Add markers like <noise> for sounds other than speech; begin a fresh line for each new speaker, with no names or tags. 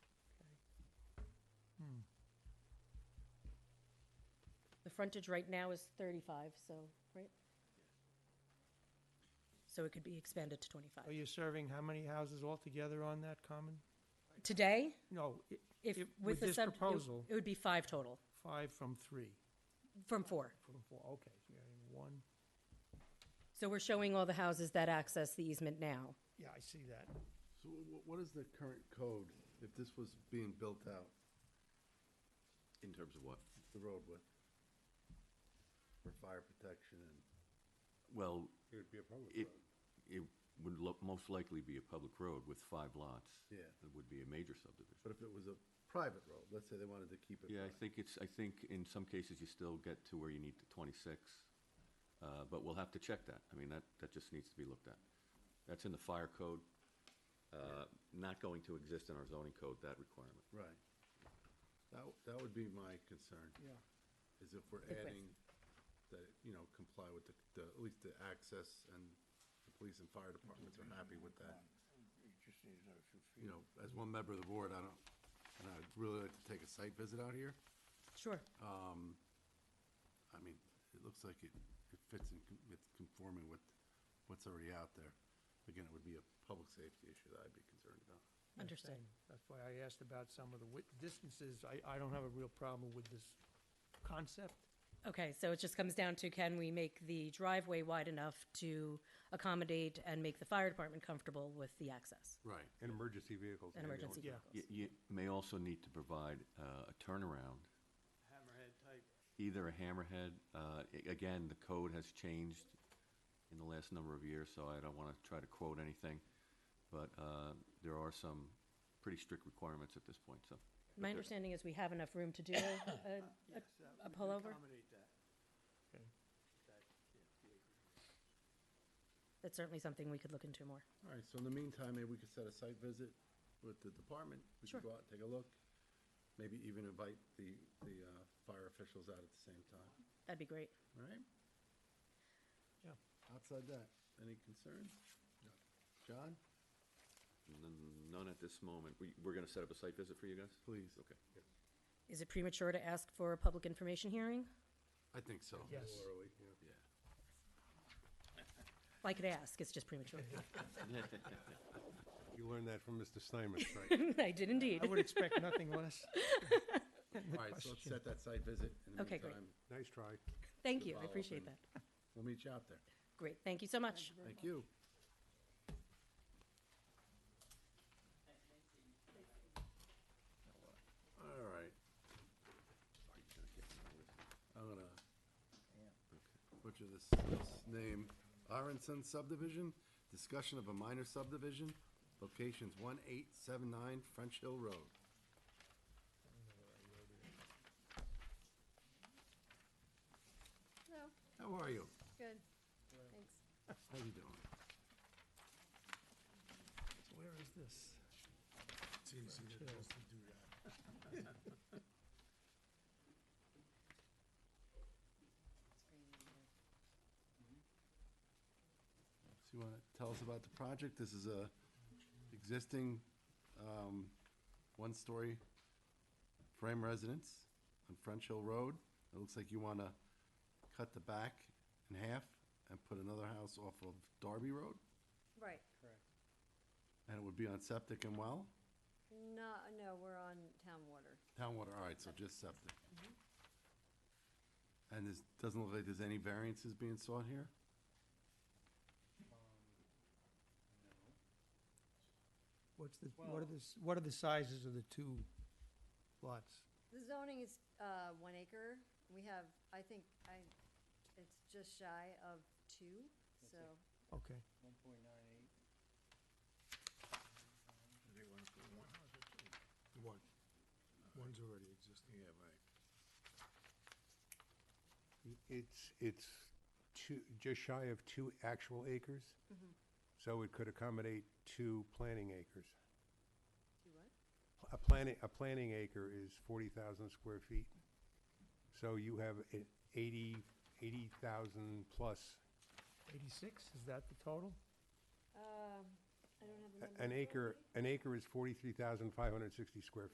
frontage right now is 35, so, right? So it could be expanded to
Are
25.
you serving how many houses altogether on that common?
Today,
No, i-
if,
If-
with
with
the
this
sub. it-
proposal-
It would be five total,
five from three,
from four.
from four, okay, so you're adding one.
So we're showing all the houses that access the easement now.
Yeah, I see that.
So wh- what is the current code if this was being built out,
In terms of what?
the road width? For fire protection and,
Well,
It would be a public
it,
road.
it would lo- most likely be a public road with five lots.
Yeah.
It would be a major subdivision.
but if it was a private road, let's say they wanted to keep it.
Yeah, I
private,
think it's, I think in some cases you still get to where you need to twenty-six, uh, but we'll have to check that. I mean, that, that just needs to be looked at. That's in the fire code, uh, not going to exist in our zoning code, that requirement.
Right. That, w- that would be my concern.
Yeah.
Is if we're
Good point.
adding that, you know, comply with the, the, at least the access and the police and fire departments are happy with that.
It just needs another few feet.
You know, as one member of the board, I don't, and I'd really like to take a site visit out here.
Sure.
Um, I mean, it looks like it, it fits in, con- it's conforming with what's already out there. Again, it would be a public safety issue that I'd be concerned about.
Understood.
Same. That's why I asked about some of the wit- distances. I, I don't have a real problem with this concept.
Okay, so it just comes down to can we make the driveway wide enough to accommodate and make the fire department comfortable with the access
Right.
And emergency vehicles.
and emergency
Yeah.
vehicles?
You, you may also need to provide, uh, a turnaround
hammerhead type.
either a hammerhead. Uh, a- again, the code has changed in the last number of years, so I don't want to try to quote anything. But uh, there are some pretty strict requirements at this point. So,
My understanding is we have enough room to do <coughs> uh, a, a-
Yes, that
a
we can
pullover?
Accommodate that.
Okay.
That, yeah, the acre.
that's certainly something we could look into more.
All right, so in the meantime, maybe we could set a site visit with the department. We
Sure.
could go out, take a look, maybe even invite the, the, uh, fire officials out at the same time,
That'd be great.
all right?
Yeah.
Outside that, any concerns? John,
N- none at this moment. We, we're going to set up a site visit for you guys?
please.
Okay.
Is it premature to ask for a public information hearing?
I think so.
Yes.
Yeah.
Well, I could ask, it's just premature. <laughs>
You learned that from Mr. Steinman,
<laughs>
right?
I did indeed.
I would expect
<laughs>
nothing less.
All right, so let's set that site visit. In the
Okay, great.
meantime,
Nice try.
Thank you, I
Well,
appreciate
then-
that.
We'll meet you out there.
Great, thank you so much.
Thank you. All right. I'm gonna butcher this, this name. Aronson subdivision, discussion of a minor subdivision, locations one eight seven nine French Hill Road.
Hello,
How are you?
good, thanks.
How you doing?
Where is this?
So you wanna tell us about the project? This is a existing, um, one-story frame residence on French Hill Road. It looks like you wanna cut the back in half and put another house off of Darby Road?
Right,
And it would be on septic and well?
no, no, we're on town water.
Town water, all right, so just septic. And there's, doesn't look like there's any variances being sought here?
What's the, what are the, s- what are the sizes of the two lots?
The zoning is, uh, one acre, we have, I think, I, it's just shy of two, so,
Okay.
One point nine eight.
They want to put one house or two? One. One's already existing. Yeah, right. It's, it's two, just shy of two actual acres.
Mm-hmm.
So it could accommodate two planting acres.
two what?
A planting, a planting acre is forty thousand square feet. So you have a- eighty, eighty thousand plus.
Eighty-six, is that the total?
Um, I don't have the
A-
number.
An acre, an acre is forty-three thousand five hundred sixty square